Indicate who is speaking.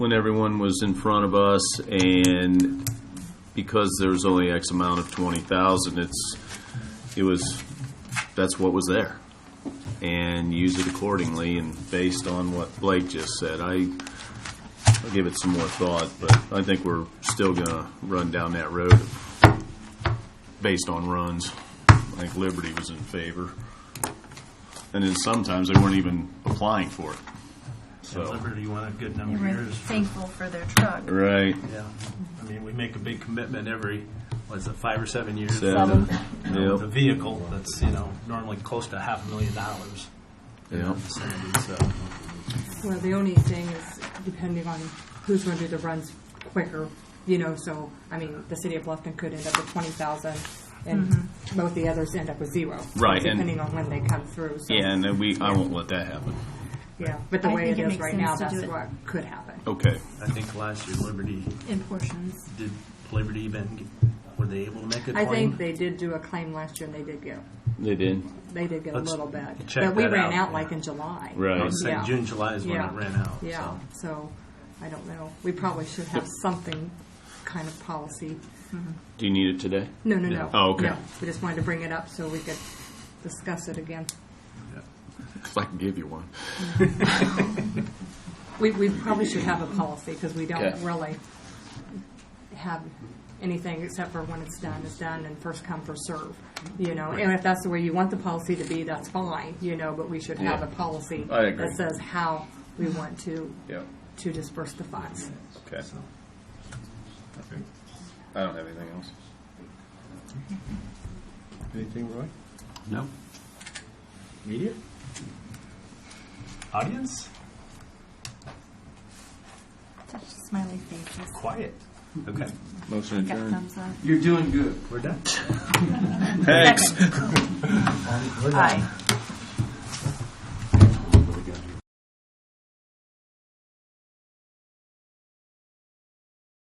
Speaker 1: when everyone was in front of us, and because there's only X amount of twenty thousand, it's, it was, that's what was there. And use it accordingly, and based on what Blake just said, I, I'll give it some more thought, but I think we're still gonna run down that road based on runs. I think Liberty was in favor. And then sometimes they weren't even applying for it, so.
Speaker 2: Liberty won a good
Speaker 3: And
Speaker 2: number of
Speaker 3: we're
Speaker 2: years.
Speaker 3: thankful for their truck.
Speaker 1: Right.
Speaker 2: Yeah, I mean, we make a big commitment every, what's it, five or seven years?
Speaker 1: Seven.
Speaker 2: You know, With a
Speaker 1: Yep.
Speaker 2: vehicle that's, you know, normally close to half a million dollars. in that
Speaker 1: Yep.
Speaker 2: vicinity, so.
Speaker 4: Well, the only thing is depending on who's going to do the runs quicker, you know, so, I mean, the city of Bluffton could end up with twenty thousand and
Speaker 3: Mm-hmm.
Speaker 4: both the others end up with zero.
Speaker 1: Right, and-
Speaker 4: Depending on when they come through, so.
Speaker 1: Yeah, and then we, I won't let that happen.
Speaker 4: Yeah, but the
Speaker 3: I
Speaker 4: way
Speaker 3: think
Speaker 4: it
Speaker 3: it
Speaker 4: is
Speaker 3: makes
Speaker 4: right
Speaker 3: sense
Speaker 4: now,
Speaker 3: to do
Speaker 4: that's
Speaker 3: it.
Speaker 4: what could happen.
Speaker 1: Okay.
Speaker 2: I think last year Liberty,
Speaker 3: In portions.
Speaker 2: did Liberty even, get- were they able to make a
Speaker 4: I
Speaker 2: claim?
Speaker 4: think they did do a claim last year and they did get,
Speaker 1: They did.
Speaker 4: they did get a
Speaker 2: Let's
Speaker 4: little bit.
Speaker 2: check
Speaker 4: But we
Speaker 2: that
Speaker 4: ran
Speaker 2: out,
Speaker 4: out like
Speaker 2: yeah.
Speaker 4: in July.
Speaker 1: Right.
Speaker 2: I was saying
Speaker 4: Yeah.
Speaker 2: June, July is when
Speaker 4: Yeah.
Speaker 2: it ran out.
Speaker 4: Yeah,
Speaker 2: so.
Speaker 4: so, I don't know. We probably should have something kind of policy.
Speaker 1: Do you need it today?
Speaker 4: No, no, no.
Speaker 1: Oh, okay.
Speaker 4: No, We just wanted to bring it up so we could discuss it again.
Speaker 1: If I can give you one.
Speaker 4: We, we probably should have a policy because we don't
Speaker 1: Okay.
Speaker 4: really have anything except for when it's done, it's done and first come, first serve. You know, and if that's the way you want the policy to be, that's fine, you know, but we should have
Speaker 1: Yeah.
Speaker 4: a policy
Speaker 1: I agree.
Speaker 4: that says how we want to,
Speaker 1: Yeah.
Speaker 4: to disperse the funds.
Speaker 1: Okay. I don't have anything else.
Speaker 5: Anything, Roy?
Speaker 2: No.
Speaker 5: Media?
Speaker 2: Audience?
Speaker 3: Such smiley faces.
Speaker 2: Quiet. Okay,
Speaker 5: Motion
Speaker 3: Got
Speaker 5: adjourned.
Speaker 3: thumbs up.
Speaker 2: we're done.
Speaker 1: Thanks.
Speaker 3: Aye.